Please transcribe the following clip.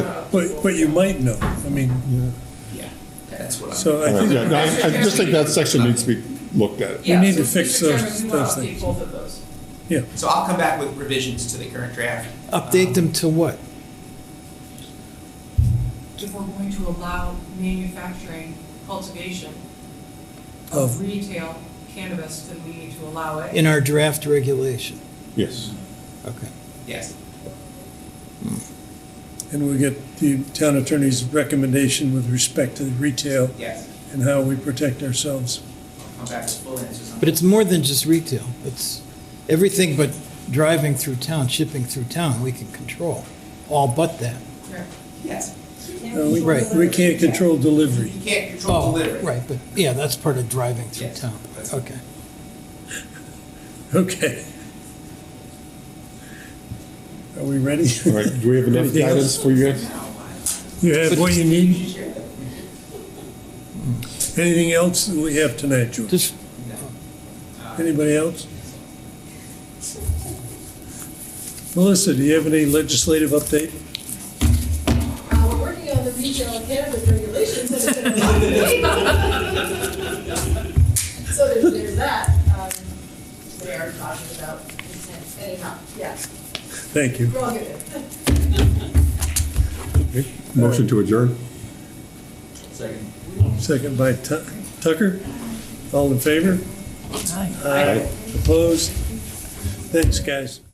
But, but you might know, I mean, Yeah, That's what I'm. so I Yeah, think no, I I just think that section needs to be looked at. We Yeah, need to so we fix determine those- we wanna those update things. Both of those. So I'll come back with revisions to the current draft. Update them to what? If we're going to allow manufacturing, cultivation Of- of retail cannabis, then we need to allow it. In our draft regulation? Yes. Okay. Yes. and we get the town attorney's recommendation with respect to retail Yes. and how we protect ourselves. I'll come back with full answers on But it's more than just retail. It's everything but driving through town, shipping through town, we can control. All but that. Right. Yes. Uh, we- Right. We can't control delivery. You can't control Oh, delivery. Right, but, yeah, that's part of driving through Yes. town. Okay. Okay. Are we ready? All right, do we have enough Anything else? guidance for you guys? You have what you need? Anything else that we have tonight, George? Just, Anybody else? Melissa, do you have any legislative update? Uh, we're working on the retail cannabis regulations. and it's gonna be big. So there's, there's that, um, they are talking about intent, anyhow, yeah, Thank you. we're all good. Motion to adjourn? Second. Second by Tu- Tucker. All in favor? Aye. Opposed? Thanks, guys.